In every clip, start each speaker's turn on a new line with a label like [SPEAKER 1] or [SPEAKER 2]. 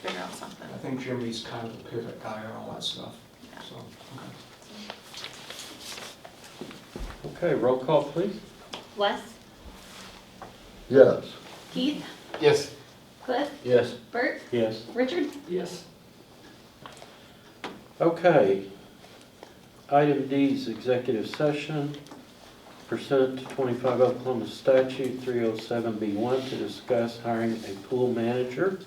[SPEAKER 1] figure out something.
[SPEAKER 2] I think Jimmy's kind of the pivot guy on all that stuff,
[SPEAKER 1] Yeah.
[SPEAKER 2] so, okay.
[SPEAKER 3] Okay, roll call, please.
[SPEAKER 4] Wes,
[SPEAKER 5] Yes.
[SPEAKER 4] Keith,
[SPEAKER 6] Yes.
[SPEAKER 4] Cliff,
[SPEAKER 5] Yes.
[SPEAKER 4] Bert,
[SPEAKER 3] Yes.
[SPEAKER 4] Richard?
[SPEAKER 6] Yes.
[SPEAKER 3] Okay. Item D is executive session pursuant to 25 Oklahoma statute 307B1 to discuss hiring a pool manager,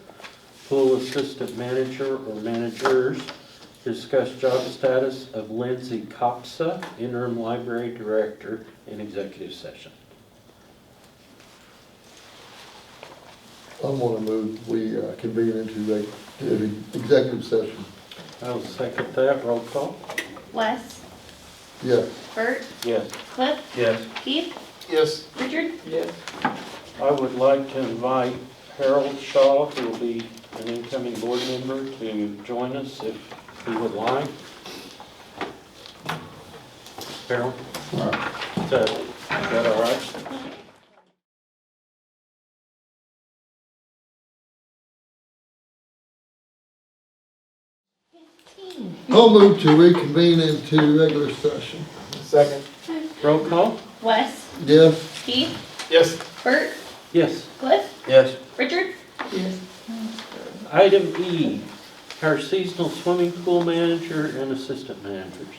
[SPEAKER 3] pool assistant manager or managers, discuss job status of Lindsay Copsa, interim library director, in executive session.
[SPEAKER 5] I'm gonna move, we uh, convene into a, to the executive session.
[SPEAKER 3] I'll second that. Roll call.
[SPEAKER 4] Wes,
[SPEAKER 5] Yes.
[SPEAKER 4] Bert,
[SPEAKER 3] Yes.
[SPEAKER 4] Cliff,
[SPEAKER 3] Yes.
[SPEAKER 4] Keith,
[SPEAKER 6] Yes.
[SPEAKER 4] Richard?
[SPEAKER 6] Yes.
[SPEAKER 3] I would like to invite Harold Shaw, who will be an incoming board member, to join us if he would like. Harold? Is that- is that all right?
[SPEAKER 5] I'll move to reconvene into regular session.
[SPEAKER 6] Second.
[SPEAKER 3] Roll call?
[SPEAKER 4] Wes,
[SPEAKER 5] Yes.
[SPEAKER 4] Keith,
[SPEAKER 6] Yes.
[SPEAKER 4] Bert,
[SPEAKER 3] Yes.
[SPEAKER 4] Cliff,
[SPEAKER 3] Yes.
[SPEAKER 4] Richard?
[SPEAKER 3] Item E, our seasonal swimming pool manager and assistant managers.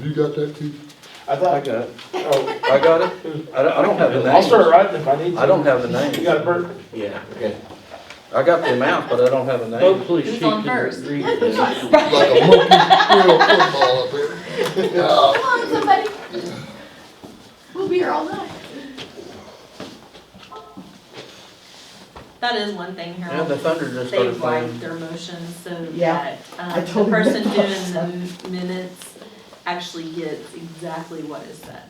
[SPEAKER 5] You got that, Keith?
[SPEAKER 6] I
[SPEAKER 3] I
[SPEAKER 6] thought,
[SPEAKER 3] got it.
[SPEAKER 6] oh,
[SPEAKER 7] I got it. I don't, I don't have the
[SPEAKER 6] I'll start
[SPEAKER 7] names.
[SPEAKER 6] writing if I need to.
[SPEAKER 7] I don't have the
[SPEAKER 6] You
[SPEAKER 7] names.
[SPEAKER 6] got a burp?
[SPEAKER 3] Yeah.
[SPEAKER 7] Okay. I got the amount, but I don't have the names.
[SPEAKER 3] Hopefully
[SPEAKER 1] Who's
[SPEAKER 3] she
[SPEAKER 1] on
[SPEAKER 3] can
[SPEAKER 1] first?
[SPEAKER 3] read this.
[SPEAKER 5] Like a monkey squirrel football up here.
[SPEAKER 1] Come on, somebody. We'll be here all night.
[SPEAKER 4] That is one thing,
[SPEAKER 7] Yeah, the
[SPEAKER 4] Harold.
[SPEAKER 7] Thunder just
[SPEAKER 4] They
[SPEAKER 7] started
[SPEAKER 4] write
[SPEAKER 7] playing.
[SPEAKER 4] their motions so
[SPEAKER 8] Yeah,
[SPEAKER 4] that um,
[SPEAKER 8] I
[SPEAKER 4] the
[SPEAKER 8] totally
[SPEAKER 4] person
[SPEAKER 8] messed up.
[SPEAKER 4] doing the minutes actually gets exactly what is said.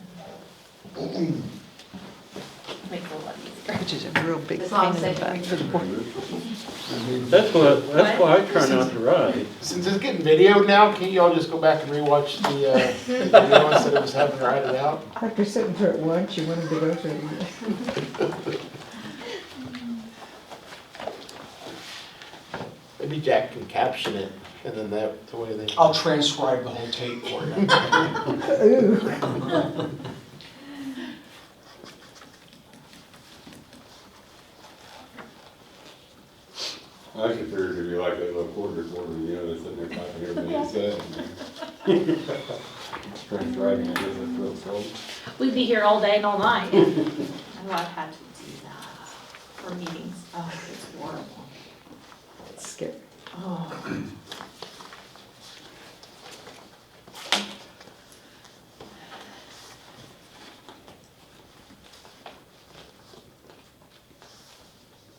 [SPEAKER 4] Makes it a lot easier.
[SPEAKER 8] Which is a real big
[SPEAKER 1] As
[SPEAKER 8] pain
[SPEAKER 1] long
[SPEAKER 8] in
[SPEAKER 1] as
[SPEAKER 8] the
[SPEAKER 1] they can
[SPEAKER 8] butt.
[SPEAKER 1] read.
[SPEAKER 3] That's what, that's why I try not to write.
[SPEAKER 6] Since it's getting videoed now, can't y'all just go back and rewatch the, uh, the video instead of just having to write it out?
[SPEAKER 8] After sitting through it once, you wanted to go through it.
[SPEAKER 6] Maybe Jack can caption it and then that, the way they.
[SPEAKER 2] I'll transcribe the whole tape for you.
[SPEAKER 9] I just figured it'd be like that little quarter quarter, you know, that's sitting there fighting everything he said. Straight driving, I guess that's real slow.
[SPEAKER 4] We'd be here all day and all night. Oh, I've had to do that for meetings. Oh, it's horrible.
[SPEAKER 8] It's scary.
[SPEAKER 4] Oh,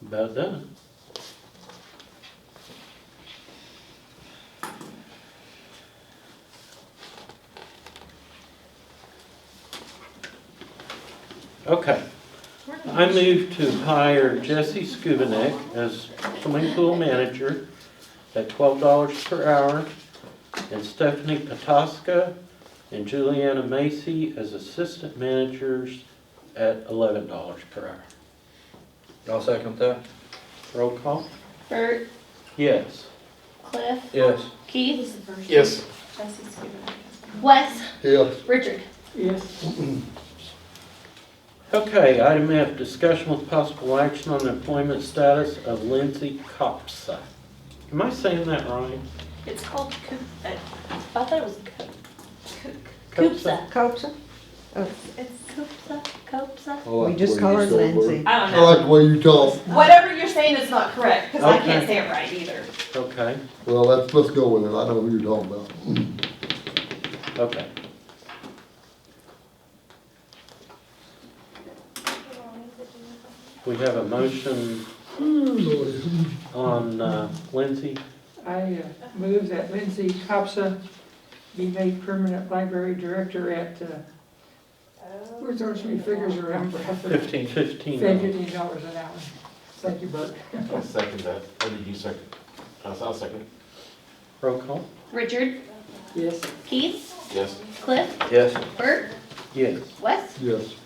[SPEAKER 3] About done. Okay, I move to hire Jesse Skubanek as swimming pool manager at twelve dollars per hour, and Stephanie Patoska and Juliana Macy as assistant managers at eleven dollars per hour.
[SPEAKER 7] I'll second that.
[SPEAKER 3] Roll call?
[SPEAKER 4] Bert,
[SPEAKER 3] Yes.
[SPEAKER 4] Cliff,
[SPEAKER 7] Yes.
[SPEAKER 4] Keith,
[SPEAKER 6] Yes.
[SPEAKER 1] Jesse's giving it.
[SPEAKER 4] Wes,
[SPEAKER 5] Yes.
[SPEAKER 4] Richard.
[SPEAKER 3] Okay, item F, discussion with possible action on the employment status of Lindsay Copsa. Am I saying that right?
[SPEAKER 4] It's called Coop, I thought it was Coop.
[SPEAKER 3] Coopsa.
[SPEAKER 4] Coopsa.
[SPEAKER 8] Copsa? Oh,
[SPEAKER 4] It's Coopsa, Coopsa.
[SPEAKER 5] I like
[SPEAKER 8] We just
[SPEAKER 5] the way
[SPEAKER 8] call
[SPEAKER 5] you
[SPEAKER 8] her
[SPEAKER 5] say it, Bert.
[SPEAKER 8] Lindsay.
[SPEAKER 4] I don't
[SPEAKER 5] I
[SPEAKER 4] know.
[SPEAKER 5] like the way you talk.
[SPEAKER 1] Whatever you're saying is not correct, because I
[SPEAKER 3] Okay.
[SPEAKER 1] can't say it right either.
[SPEAKER 3] Okay,
[SPEAKER 5] Well, let's, let's go with it. I know who you're talking about.
[SPEAKER 3] okay. We have a motion on uh, Lindsay.
[SPEAKER 10] I uh, move that Lindsay Copsa be made permanent library director at, uh, where's those three figures around?
[SPEAKER 3] Fifteen. Fifteen.
[SPEAKER 10] Fifteen dollars an hour. Thank you, Bert.
[SPEAKER 6] I'll second that. Or did you second? I'll, I'll second.
[SPEAKER 3] Roll call?
[SPEAKER 4] Richard,
[SPEAKER 10] Yes.
[SPEAKER 4] Keith,
[SPEAKER 6] Yes.
[SPEAKER 4] Cliff,
[SPEAKER 7] Yes.
[SPEAKER 4] Bert,
[SPEAKER 3] Yes.
[SPEAKER 4] Wes,
[SPEAKER 5] Yes.